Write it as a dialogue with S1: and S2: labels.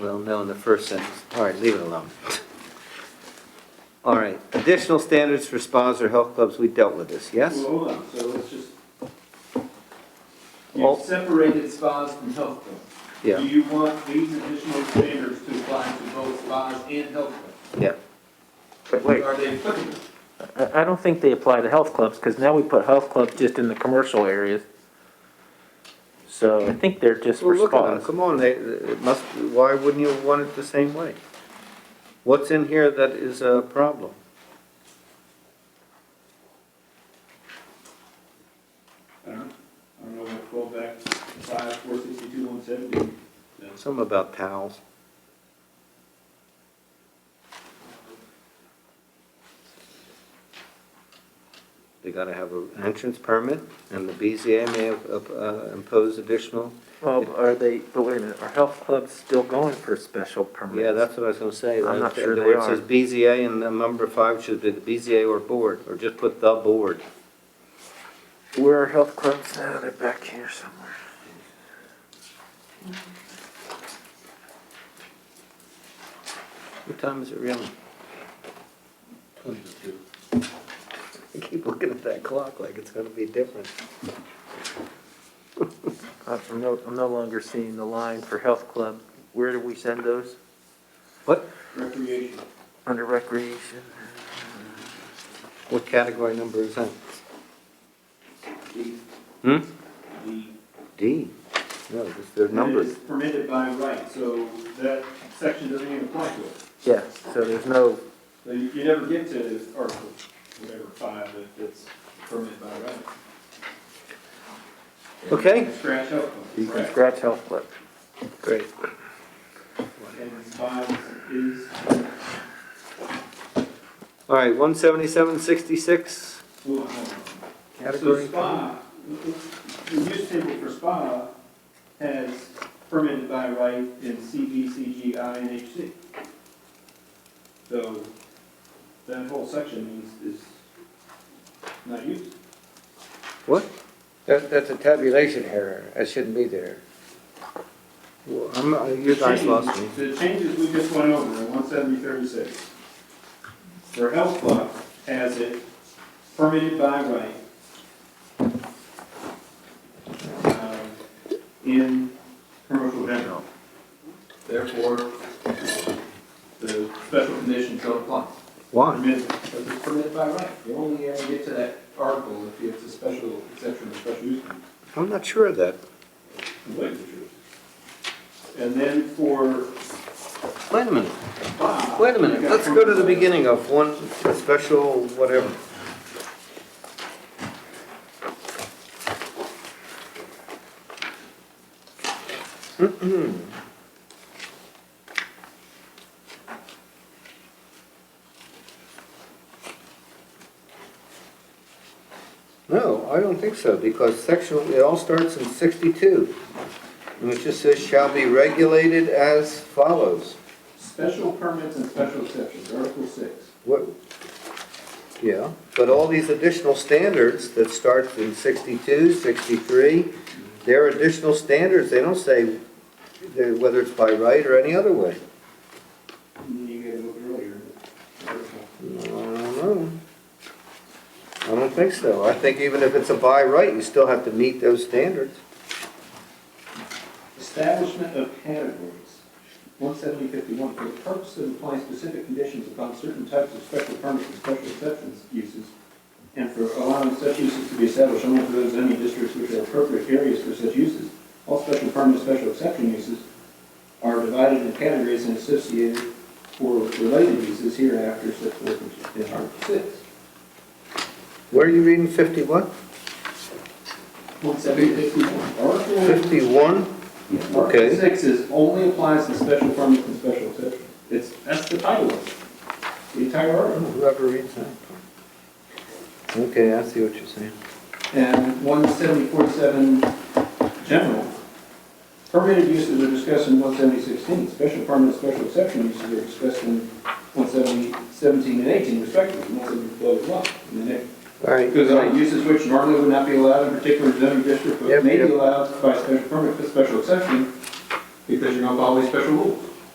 S1: Well, no, in the first sentence. All right, leave it alone. All right, additional standards for spas or health clubs, we dealt with this, yes?
S2: Well, hold on, so let's just,
S1: Well-
S2: you've separated spas from health clubs. Do
S1: Yeah,
S2: you want these additional standards to apply to both spas and health clubs?
S1: yeah.
S3: But wait,
S2: Are they applicable?
S3: I, I don't think they apply to health clubs, because now we put health clubs just in the commercial areas. So I think they're just
S1: Well,
S3: for
S1: look at them,
S3: spas.
S1: come on, they, it must, why wouldn't you want it the same way? What's in here that is a problem?
S2: I don't know, I don't know, we'll go back five, four sixty-two, one seventy.
S1: Something about towels. They gotta have an entrance permit, and the BZA may have, uh, impose additional.
S3: Well, are they, but wait a minute, are health clubs still going for special permits?
S1: Yeah, that's what I was gonna say.
S3: I'm not sure
S1: Where it
S3: they
S1: says
S3: are.
S1: BZA and the number five should be the BZA or board, or just put the board.
S3: Where are health clubs now? They're back here somewhere.
S1: What time is it really?
S2: Twenty-two.
S1: I keep looking at that clock like it's gonna be different.
S3: Uh, I'm no, I'm no longer seeing the line for health club. Where do we send those?
S1: What,
S2: Recreation,
S3: Under recreation?
S1: what category number is that?
S2: D,
S1: Hmm?
S2: D.
S1: D. No, it's their numbers.
S2: It is Permitted by right, so that section doesn't even apply to it.
S3: Yeah, so there's no,
S2: So you, you never get to Article, whatever, five, if it's permitted by right.
S1: Okay.
S2: Scratch health clubs,
S3: you can
S2: correct.
S3: scratch health club.
S1: Great.
S2: And spas is
S1: All right, one seventy-seven sixty-six.
S2: Hold on, hold on.
S1: Category
S2: So spa, the use table for spa has permitted by right in CB, CG, INHC. So that whole section is, is not used.
S1: What?
S4: That, that's a tabulation error, that shouldn't be there.
S1: Well, I'm, uh, you guys lost me.
S2: The changes we just went over in one seventy thirty-six. For health club has it permitted by right. um, In commercial general. Therefore, the special conditions don't apply.
S1: Why?
S2: Permitted, because it's permitted by right. You only ever get to that article if it's a special exception or special use. permit.
S1: I'm not sure of that.
S2: And then for
S1: Wait a minute,
S2: spa.
S1: wait a minute.
S2: you got
S1: Let's go to the
S2: permitted by-
S1: beginning of one special whatever. Mm-hmm. No, I don't think so, because section, it all starts in sixty-two. And it just says shall be regulated as follows.
S2: Special permits and special exceptions, Article six.
S1: What, yeah, but all these additional standards that start in 62, 63, they're additional standards, they don't say they're- whether it's by right or any other way.
S2: You gotta look earlier.
S1: I don't know. I don't think so, I think even if it's a by right, you still have to meet those standards.
S2: Establishment of categories, one seventy fifty-one, for the purpose of applying specific conditions upon certain types of special permits and special exceptions uses, and for allowing such uses to be established only for those zoning districts which are appropriate areas for such uses. All special permit, and special exception uses are divided into categories and associated or related uses hereafter set forth in Article six.
S1: Where are you reading 51?
S2: One seventy fifty-one, Article
S1: 51?
S2: Article
S1: Okay.
S2: six is only applies to special permits and special exceptions. It's, that's the title of it, the entire article.
S1: Oh, Whoever reads that. Okay, I see what you're saying.
S2: And one seventy forty-seven general, permitted uses are discussed in one seventy sixteen, special permit and special exception uses are discussed in one seventy seventeen and eighteen respectively, one seventy blah blah blah. And then
S1: All
S2: it
S1: right.
S2: goes on, uses which normally would not be allowed in a particular zoning district, but
S1: Yep,
S2: may be
S1: yep.
S2: allowed by special permit, with special exception, because you're gonna follow these special rules.